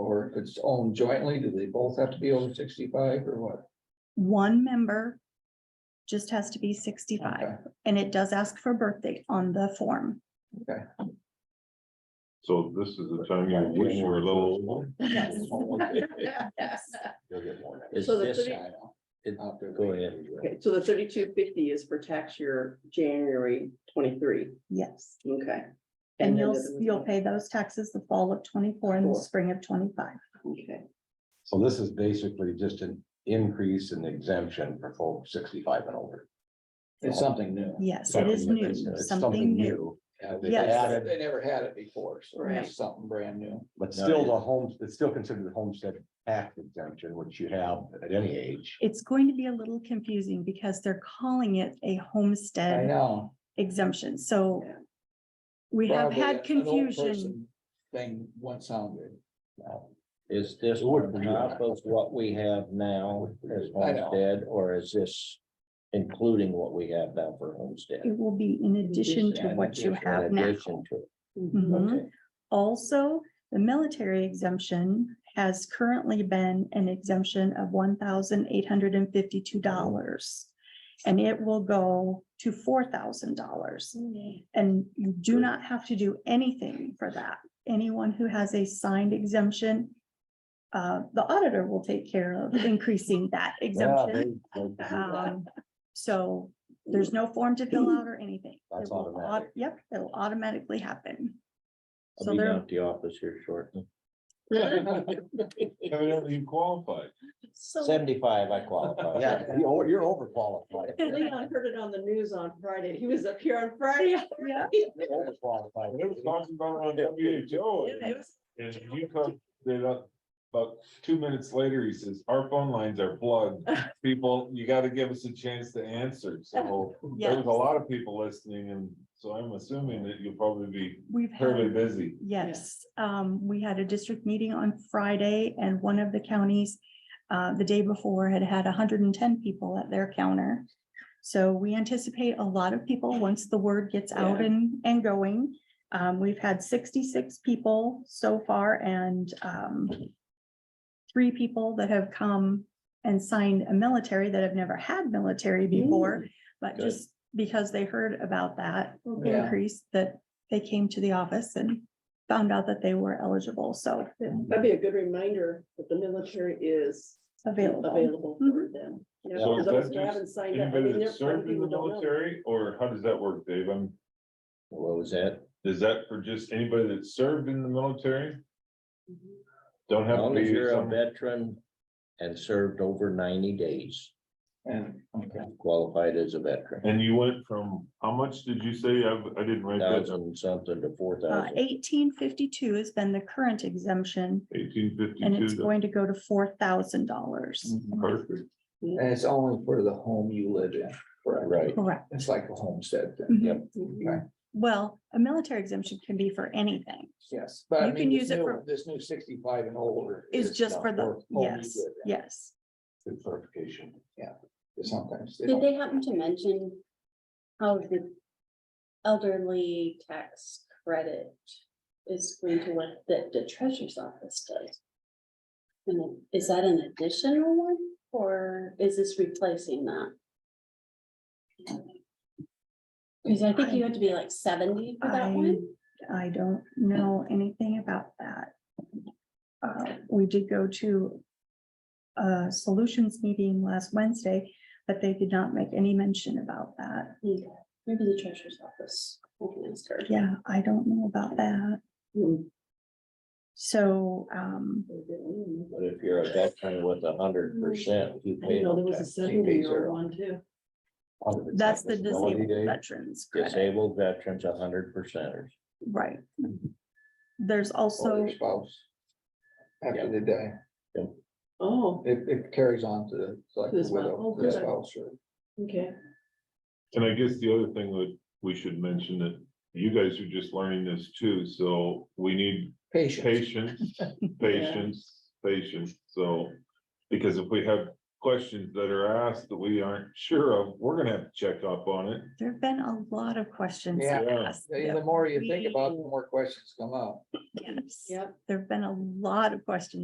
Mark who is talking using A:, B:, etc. A: if it's owned jointly, do they both have to be over sixty-five or what?
B: One member just has to be sixty-five,
A: Okay.
B: and it does ask for birthday on the form.
C: So this is the time you wish you were a little older.
D: Yes.
C: You'll get more.
E: Is
D: So the
E: this,
D: thirty-
A: I know.
E: it-
A: Out there.
E: go ahead.
D: Okay, so the thirty-two fifty is for tax year January twenty-three,
B: Yes,
D: okay.
B: and
D: then
B: you'll,
D: the other one's-
B: you'll pay those taxes the fall of twenty-four and the
D: Four.
B: spring of twenty-five.
D: Okay,
C: So this is basically just an increase in exemption for folks sixty-five and older.
A: It's something new.
B: Yes, it is new,
C: It's
B: something new.
A: Yeah,
C: They
B: Yes.
C: added-
A: They never had it before, so
D: Right.
A: it's something brand new.
C: But still the home, it's still considered a homestead act exemption, which you have at any age.
B: It's going to be a little confusing because they're calling it a
A: I
B: homestead
A: know.
B: exemption, so
D: Yeah.
B: we have
A: Probably
B: had
A: an old
B: confusion.
A: person Thing once sounded.
E: Is this
C: would
E: on
C: be
E: top
C: that.
E: of what we have now as
A: I know.
E: homestead, or is this including what we have now for homestead?
B: It will be in addition to
E: In
B: what you
E: addition-
B: have
E: in
B: now.
E: addition to it.
C: Mm-hmm.
B: Mhm.
E: Okay.
B: Also, the military exemption has currently been an exemption of one thousand eight hundred and fifty-two dollars. And it will go to four thousand dollars. And you do not have to do anything for that. Anyone who has a signed exemption, uh, the auditor will take care of increasing that
C: Yeah,
B: exemption.
C: they- they-
B: Um, so there's no form to fill out or anything.
C: That's
B: It will au-
C: automatic.
B: Yep, it'll automatically happen.
E: I'll
B: So
E: be down
B: there,
E: at the office here shortly.
C: Evidently you qualify.
D: So
E: Seventy-five, I qualify.
C: Yeah, you're you're overqualified.
D: Leon heard it on the news on Friday. He was up here on Friday.
B: Yeah.
C: You're Overqualified.
F: They was talking about on WHO,
D: It was-
F: and you come, they're up, about two minutes later, he says, our phone lines are plugged. People, you gotta give us a chance to answer, so there was
B: Yes.
F: a lot of people listening, and so I'm assuming that you'll probably be
B: we've
F: fairly
B: had,
F: busy.
B: yes, um, we had a district meeting on Friday and one of the counties uh, the day before had had hundred and ten people at their counter. So we anticipate a lot of people once the word gets out
D: Yeah.
B: and, and going. Um, we've had sixty-six people so far and, um, three people that have come and signed a military that have never had military before, but
E: Good.
B: just because they heard about that
A: Yeah.
B: increase, that they came to the office and found out that they were eligible, so uh,
D: That'd be a good reminder that the military is
B: available. Mm-hmm.
D: available for them. You
C: Yeah.
D: know,
F: So is
D: because those
F: that
D: who
F: just
D: haven't signed up, I
F: Anybody
D: mean,
F: that
D: there's some
F: served in the
D: people don't know.
F: military, or how does that work, Dave? I'm,
E: What was that?
F: is that for just anybody that served in the military?
D: Mhm.
F: Don't
E: As
F: have um, to
E: long as
F: be
E: you're a
F: some,
E: veteran and served over ninety days,
A: And, okay,
E: qualified as a veteran.
F: and you went from, how much did you say? I, I didn't write that down.
E: Thousand something to four
B: Uh,
E: thousand.
B: eighteen fifty-two has been the current exemption,
F: Eighteen
B: and it's
F: fifty-two,
B: going to go to four thousand dollars.
E: Mm-hmm.
F: perfect.
A: and it's only for the home you live in, correct?
E: Right.
B: Correct.
A: It's like a homestead thing,
B: Mhm.
D: Mhm.
B: Well, a military exemption can be for anything.
A: yes, but I
B: You can
A: mean,
B: use
A: this
B: it
A: new,
B: for-
A: this new sixty-five and older.
B: It's
A: is
B: just
A: not
B: for the,
A: home you
B: yes,
A: live in.
B: yes.
C: Good clarification.
A: Sometimes. they
G: Did
A: don't-
G: they happen to mention how the elderly tax credit is going to what that the treasurer's office does? And is that an additional one or is this replacing that? Because I think you had to be like seventy for that
B: I,
G: one.
B: I don't know anything about that. Uh, we did go to a solutions meeting last Wednesday, but they did not make any mention about that.
G: Okay, Maybe the treasurer's office. I can ask her.
B: Yeah, I don't know about that.
D: Hmm.
B: So, um,
E: But if you're a veteran with a hundred percent, you
D: I
E: pay
D: didn't know there
E: no
D: was a
E: tax.
D: seventy year
E: Zero.
D: old one too.
B: that's the disabled
C: Disability day.
B: veterans credit,
E: Disabled veterans, a hundred percenters.
B: right?
A: Mm-hmm.
B: There's
A: or
B: also,
A: their Spouse. After they die,
D: Oh,
A: it, it carries on to the, it's like
D: To
A: the
D: the spouse.
A: widow,
D: Oh,
A: the
D: good.
A: spouse, or
D: okay.
F: And I guess the other thing that we should mention that you guys are just learning this too, so we need
A: patient.
F: patience, patience, patience, so. Because if we have questions that are asked that we aren't sure of, we're gonna have to check up on it.
B: there've been a lot of questions
A: Yeah.
B: asked.
A: The the more you think about, it, the more questions come up.
B: Yes.
D: Yep.
B: There've been a lot of questions